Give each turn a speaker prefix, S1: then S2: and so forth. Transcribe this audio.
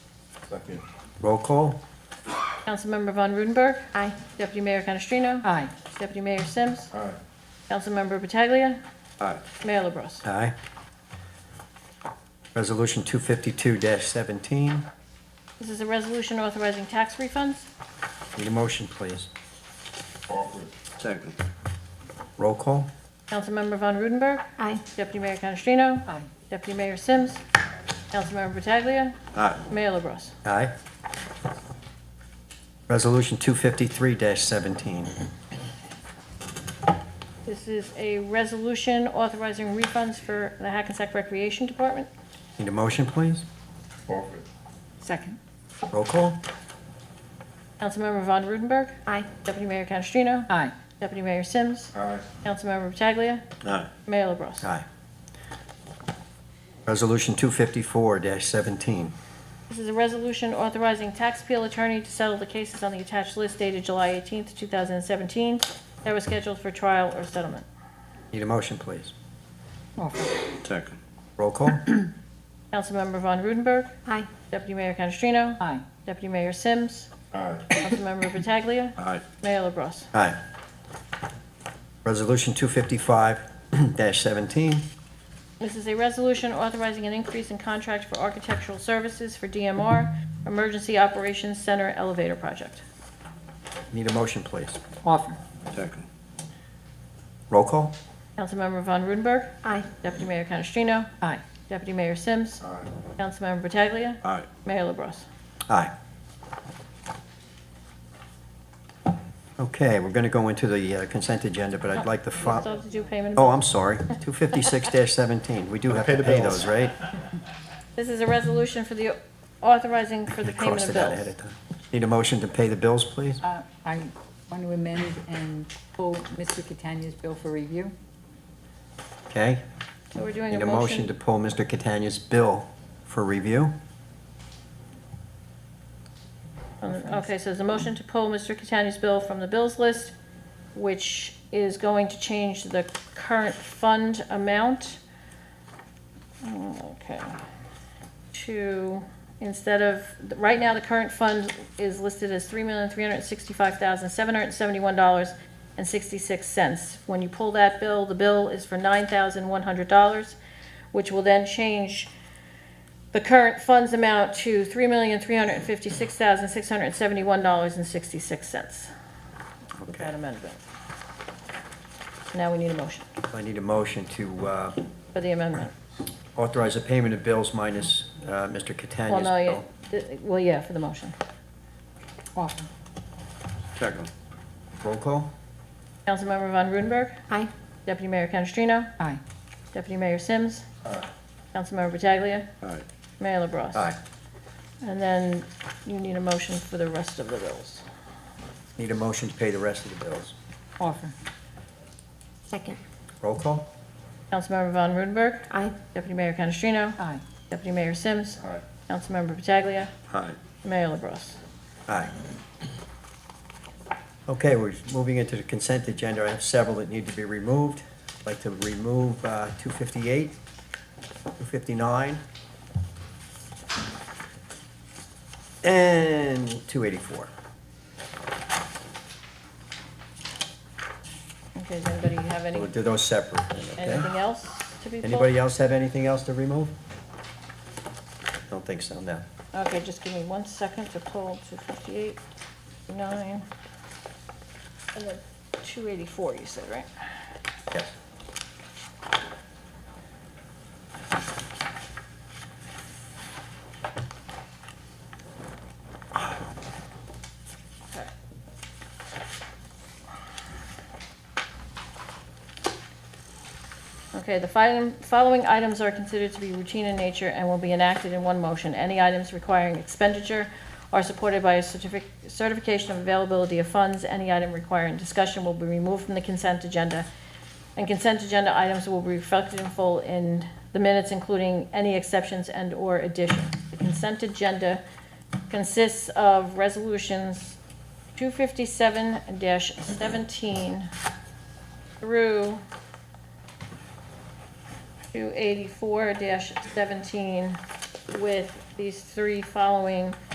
S1: Second.
S2: Roll call?
S3: Councilmember Von Rudenberg. Aye. Deputy Mayor Canestrino.
S4: Aye.
S3: Deputy Mayor Sims.
S1: Aye.
S3: Councilmember Pataglia.
S1: Aye.
S3: Mayor LaBrus.
S2: Aye. Resolution 252-17.
S3: This is a resolution authorizing tax refunds.
S2: Need a motion, please.
S1: Offer.
S5: Second.
S2: Roll call?
S3: Councilmember Von Rudenberg.
S4: Aye.
S3: Deputy Mayor Canestrino.
S4: Aye.
S3: Deputy Mayor Sims. Councilmember Pataglia.
S5: Aye.
S3: Mayor LaBrus.
S2: Aye. Resolution 253-17.
S3: This is a resolution authorizing refunds for the Hackensack Recreation Department.
S2: Need a motion, please?
S1: Offer.
S4: Second.
S2: Roll call?
S3: Councilmember Von Rudenberg.
S4: Aye.
S3: Deputy Mayor Canestrino.
S4: Aye.
S3: Deputy Mayor Sims.
S1: Aye.
S3: Councilmember Pataglia.
S5: Aye.
S3: Mayor LaBrus.
S2: Aye. Resolution 254-17.
S3: This is a resolution authorizing tax appeal attorney to settle the cases on the attached list dated July 18th, 2017, that were scheduled for trial or settlement.
S2: Need a motion, please?
S4: Offer.
S5: Second.
S2: Roll call?
S3: Councilmember Von Rudenberg.
S4: Aye.
S3: Deputy Mayor Canestrino.
S4: Aye.
S3: Deputy Mayor Sims.
S1: Aye.
S3: Councilmember Pataglia.
S5: Aye.
S3: Mayor LaBrus.
S2: Aye. Resolution 255-17.
S3: This is a resolution authorizing an increase in contract for architectural services for DMR Emergency Operations Center Elevator Project.
S2: Need a motion, please?
S4: Offer.
S5: Second.
S2: Roll call?
S3: Councilmember Von Rudenberg.
S4: Aye.
S3: Deputy Mayor Canestrino.
S4: Aye.
S3: Deputy Mayor Sims.
S1: Aye.
S3: Councilmember Pataglia.
S5: Aye.
S3: Mayor LaBrus.
S2: Aye. Okay, we're going to go into the uh, consent agenda, but I'd like to
S3: You
S2: fo-
S3: still have to do payment. of
S2: oh,
S3: bills.
S2: I'm sorry, 256-17. We do have
S1: Pay
S2: to
S1: the
S2: pay
S1: bills.
S2: those, right?
S3: This is a resolution for the, authorizing for the
S2: I
S3: payment
S2: crossed
S3: of
S2: it out ahead
S3: bills.
S2: of time. Need a motion to pay the bills, please?
S6: Uh, I want to amend and pull Mr. Catania's bill for review.
S2: Okay?
S3: So we're doing
S2: Need
S3: a
S2: a motion to
S3: motion.
S2: pull Mr. Catania's bill for review?
S3: Okay, so there's a motion to pull Mr. Catania's bill from the bills list, which is going to change the current fund amount. Okay. To, instead of, right now, the current fund is listed as three million, three hundred and sixty-five thousand, seven hundred and seventy-one dollars and sixty-six cents. When you pull that bill, the bill is for nine thousand, one hundred dollars, which will then change the current funds amount to three million, three hundred and fifty-six thousand, six hundred and seventy-one dollars and sixty-six cents. With that
S2: Okay.
S3: amendment. Now we need a motion
S2: I need a motion to uh,
S3: for the amendment.
S2: authorize the payment of bills minus uh, Mr.
S3: Well,
S2: Catania's
S3: no, yeah,
S2: bill.
S3: th- well, yeah, for the motion.
S6: Offer.
S5: Second.
S2: Roll call?
S3: Councilmember Von Rudenberg,
S4: Aye.
S3: Deputy Mayor Canestrino,
S6: Aye.
S3: Deputy Mayor Sims,
S1: Aye.
S3: Councilmember Pataglia,
S5: Aye.
S3: Mayor LaBrus.
S2: Aye.
S3: And then you need a motion for the rest of the bills.
S2: Need a motion to pay the rest of the bills.
S6: Offer.
S4: Second.
S2: Roll call?
S3: Councilmember Von Rudenberg,
S4: Aye.
S3: Deputy Mayor Canestrino,
S6: Aye.
S3: Deputy Mayor Sims,
S1: Aye.
S3: Councilmember Pataglia,
S5: Aye.
S3: Mayor LaBrus.
S2: Aye. Okay, we're moving into the consent agenda. I have several that need to be removed. I'd like to remove uh, 258, 259, and 284.
S3: Okay, does anybody have any,
S2: We'll do those separate,
S3: anything
S2: okay?
S3: else to be pulled?
S2: Anybody else have anything else to remove? Don't think so, no.
S3: Okay, just give me one second to pull 258, 9, and then 284, you said, right?
S2: Yes.
S3: Okay. Okay, the fin- following items are considered to be routine in nature and will be enacted in one motion. Any items requiring expenditure are supported by a certific- certification of availability of funds. Any item requiring discussion will be removed from the consent agenda. And consent agenda items will be reflected in full in the minutes, including any exceptions and/or additions. The consent agenda consists of resolutions 257-17 through 284-17 with these three following